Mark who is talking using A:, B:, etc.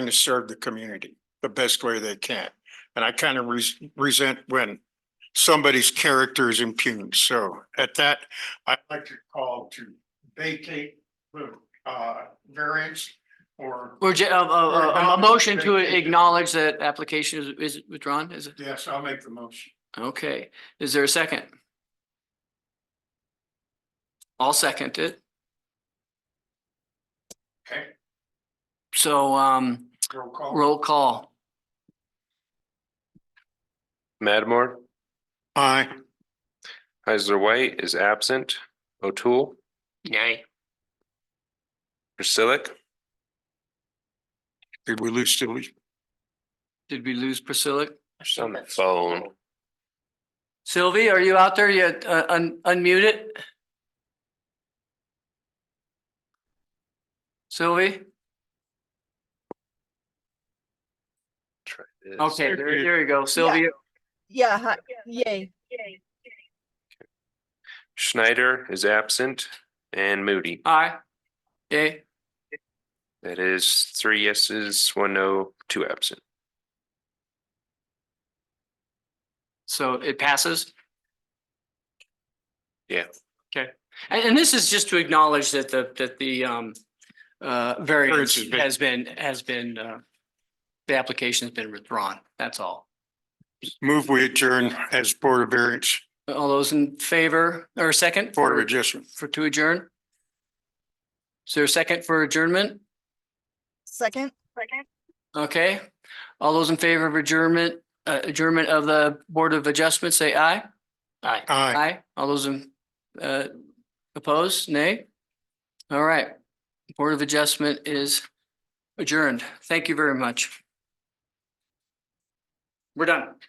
A: trying to serve the community the best way they can. And I kind of resent when somebody's character is impugned. So at that, I'd like to call to vacate the uh variance or
B: Or ju- a, a- a- a- a motion to acknowledge that application is, is withdrawn, is it?
A: yes, I'll make the motion.
B: Okay, is there a second? I'll second it.
A: Okay,
B: So, um,
A: roll call.
B: roll call.
C: Madmore,
A: Aye.
C: Heisler White is absent. O'Toole,
B: Nay.
C: Priscillic,
A: Did we lose Tilly?
B: Did we lose Priscilla?
C: she's on the phone.
B: Sylvie, are you out there yet? Uh, un- unmute it? Sylvie?
C: Try this.
B: Okay, there, there you go. Sylvia,
D: Yeah, hi- yay.
C: Schneider is absent and Moody.
B: aye. Okay,
C: That is three yeses, one no, two absent.
B: so it passes?
C: Yeah.
B: Okay, and, and this is just to acknowledge that the, that the, um, uh, variance
A: has been-
B: has been, has been, uh, the application's been withdrawn, that's all.
A: Move we adjourn as Board of Variance,
B: All those in favor, or second?
A: Board of
B: for-
A: Adjustment.
B: for to adjourn? Is there a second for adjournment?
D: Second?
B: Okay, all those in favor of adjournment, uh, adjournment of the Board of Adjustment, say aye. Aye.
A: Aye.
B: Aye, all those in, uh, opposed, nay? All right, Board of Adjustment is adjourned. Thank you very much. We're done.